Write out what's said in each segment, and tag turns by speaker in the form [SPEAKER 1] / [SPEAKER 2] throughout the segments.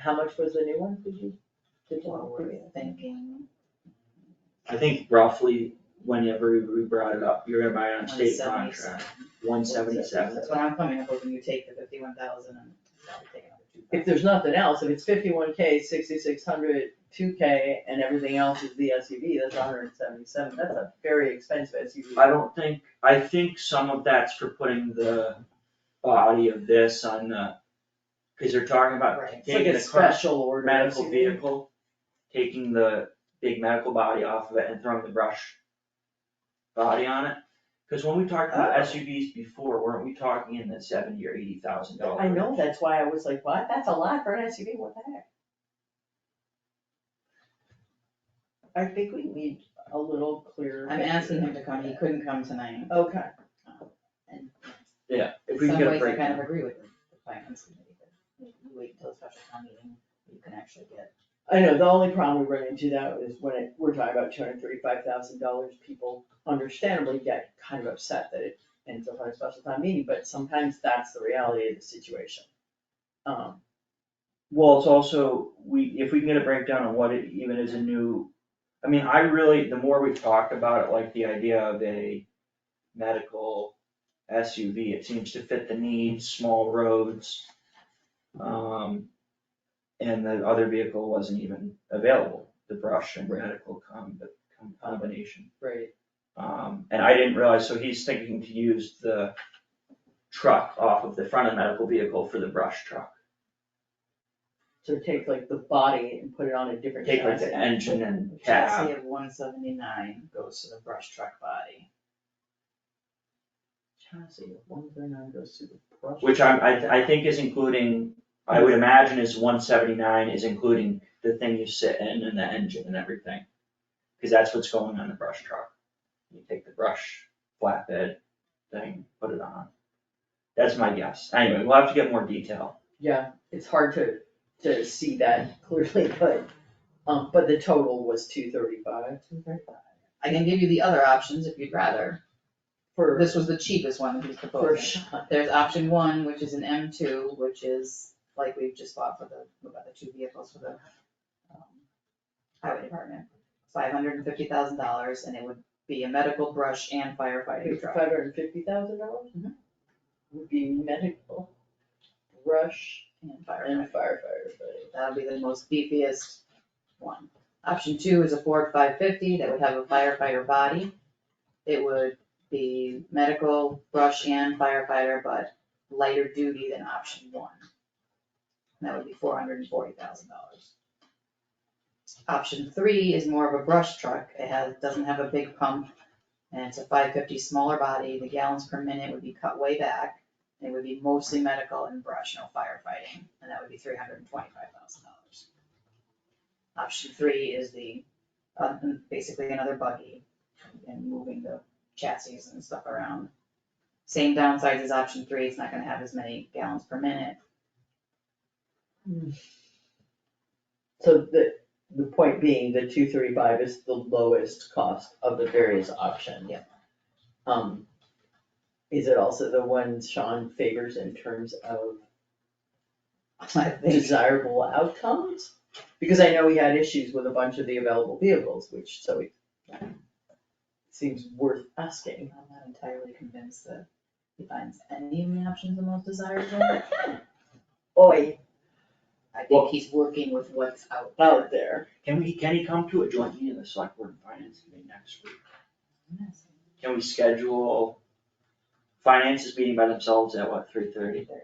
[SPEAKER 1] How much was the new one, did you, did you
[SPEAKER 2] Well,
[SPEAKER 1] already think?
[SPEAKER 2] I think roughly whenever we brought it up, you're gonna buy it on state
[SPEAKER 1] 177.
[SPEAKER 2] contract, one seventy-seven.
[SPEAKER 1] That's what I'm coming up with, when you take the fifty-one thousand and probably take another two
[SPEAKER 3] If there's nothing else, if it's fifty-one K, sixty-six hundred, two K, and everything else is the SUV, that's hundred and seventy-seven, that's a very expensive SUV.
[SPEAKER 2] I don't think, I think some of that's for putting the body of this on the, cause they're talking about
[SPEAKER 1] Right.
[SPEAKER 3] It's like
[SPEAKER 2] taking
[SPEAKER 3] a
[SPEAKER 2] the crush,
[SPEAKER 3] special order
[SPEAKER 2] medical
[SPEAKER 3] SUV.
[SPEAKER 2] vehicle, taking the big medical body off of it and throwing the brush body on it. Cause when we talked about
[SPEAKER 3] Oh.
[SPEAKER 2] SUVs before, weren't we talking in the seventy or eighty thousand dollars?
[SPEAKER 3] I know, that's why I was like, what, that's a lot for an SUV, what the heck? I think we need a little clearer.
[SPEAKER 1] I'm asking him to come, he couldn't come tonight,
[SPEAKER 3] Okay,
[SPEAKER 1] and
[SPEAKER 2] Yeah,
[SPEAKER 1] in
[SPEAKER 2] if we can
[SPEAKER 1] some
[SPEAKER 2] get a
[SPEAKER 1] ways I kind
[SPEAKER 2] breakdown.
[SPEAKER 1] of agree with the the finance committee, but you wait until a special town meeting, you can actually get.
[SPEAKER 3] I know, the only problem we run into that is when it, we're talking about two hundred thirty-five thousand dollars, people understandably get kind of upset that it ends up on a special time meeting, but sometimes that's the reality of the situation. Um,
[SPEAKER 2] Well, it's also, we, if we can get a breakdown on what it even is a new, I mean, I really, the more we talk about it, like the idea of a medical SUV, it seems to fit the needs, small roads. Um, and the other vehicle wasn't even available, the brush and
[SPEAKER 3] Right.
[SPEAKER 2] medical com, the com- combination.
[SPEAKER 3] right,
[SPEAKER 2] Um, and I didn't realize, so he's thinking to use the truck off of the front of the medical vehicle for the brush truck.
[SPEAKER 3] so take like the body and put it on a different
[SPEAKER 2] Take like
[SPEAKER 3] chassis.
[SPEAKER 2] the engine and
[SPEAKER 1] Chassis
[SPEAKER 2] cab,
[SPEAKER 1] of one seventy-nine goes to the brush truck body.
[SPEAKER 3] Chassis, one thirty-nine goes to the brush.
[SPEAKER 2] which I'm, I, I think is including, I would imagine is one seventy-nine is including the thing you sit in and the engine and everything. Cause that's what's going on the brush truck. You take the brush flatbed thing, put it on. That's my guess. Anyway, we'll have to get more detail.
[SPEAKER 3] Yeah, it's hard to, to see that clearly, but, um, but the total was two thirty-five
[SPEAKER 1] I can give you the other options if you'd rather,
[SPEAKER 3] for, Oh,
[SPEAKER 1] this was the cheapest one that he's
[SPEAKER 3] for
[SPEAKER 1] proposing.
[SPEAKER 3] shot.
[SPEAKER 1] There's option one, which is an M two, which is like we've just bought for the, we bought the two vehicles for the um, highway department, five hundred and fifty thousand dollars, and it would be a medical brush and firefighting truck.
[SPEAKER 3] Five hundred and fifty thousand dollars?
[SPEAKER 1] Mhm.
[SPEAKER 3] Would be medical, brush,
[SPEAKER 1] And
[SPEAKER 3] and
[SPEAKER 1] firefighting,
[SPEAKER 3] firefighter, but
[SPEAKER 1] that'll be the most beefiest one. Option two is a Ford five fifty that would have a firefighter body. It would be medical, brush and firefighter, but lighter duty than option one. And that would be four hundred and forty thousand dollars. Option three is more of a brush truck. It has, doesn't have a big pump. And it's a five fifty smaller body. The gallons per minute would be cut way back. It would be mostly medical and brush, no firefighting, and that would be three hundred and twenty-five thousand dollars. Option three is the, uh, basically another buggy and moving the chassis and stuff around. Same downsides as option three, it's not gonna have as many gallons per minute.
[SPEAKER 3] So the, the point being, the two thirty-five is the lowest cost of the various options.
[SPEAKER 1] Yeah.
[SPEAKER 3] Um, is it also the one Sean favors in terms of
[SPEAKER 1] I think,
[SPEAKER 3] desirable outcomes? Because I know we had issues with a bunch of the available vehicles, which, so it seems worth asking.
[SPEAKER 1] I'm not entirely convinced that he finds any of the options the most desirable.
[SPEAKER 3] Oi,
[SPEAKER 1] I think he's working with what's out
[SPEAKER 2] Oh.
[SPEAKER 1] there.
[SPEAKER 3] out there.
[SPEAKER 2] Can we, can he come to a joint meeting of the select board and finance committee next week?
[SPEAKER 1] Yes,
[SPEAKER 2] Can we schedule finances meeting by themselves at what, three thirty?
[SPEAKER 1] 30.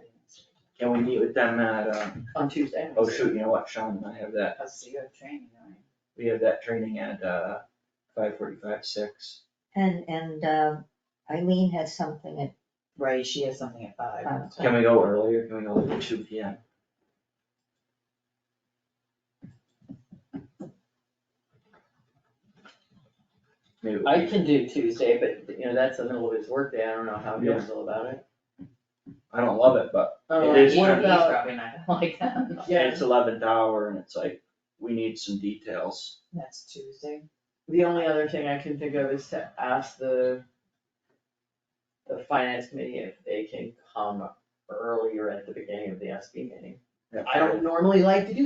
[SPEAKER 2] Can we meet with them at, uh,
[SPEAKER 3] On Tuesday.
[SPEAKER 2] oh shoot, you know what, Sean and I have that
[SPEAKER 1] That's the good training, right?
[SPEAKER 2] We have that training at uh five forty-five, six.
[SPEAKER 4] And, and um, Eileen has something at
[SPEAKER 1] Right, she has something at five.
[SPEAKER 4] five
[SPEAKER 2] Can
[SPEAKER 4] o'clock.
[SPEAKER 2] we go earlier? Can we go like two P M? Maybe,
[SPEAKER 3] I can do Tuesday, but you know, that's the middle of his workday. I don't know how you
[SPEAKER 2] Yeah.
[SPEAKER 3] feel about it.
[SPEAKER 2] I don't love it, but
[SPEAKER 3] Uh,
[SPEAKER 2] It is
[SPEAKER 3] What
[SPEAKER 2] true.
[SPEAKER 3] about,
[SPEAKER 1] Probably not gonna like that.
[SPEAKER 3] Yeah.
[SPEAKER 2] it's eleventh hour and it's like, we need some details.
[SPEAKER 1] That's Tuesday.
[SPEAKER 3] the only other thing I can think of is to ask the the finance committee if they can come earlier at the beginning of the SB meeting. I don't normally like to do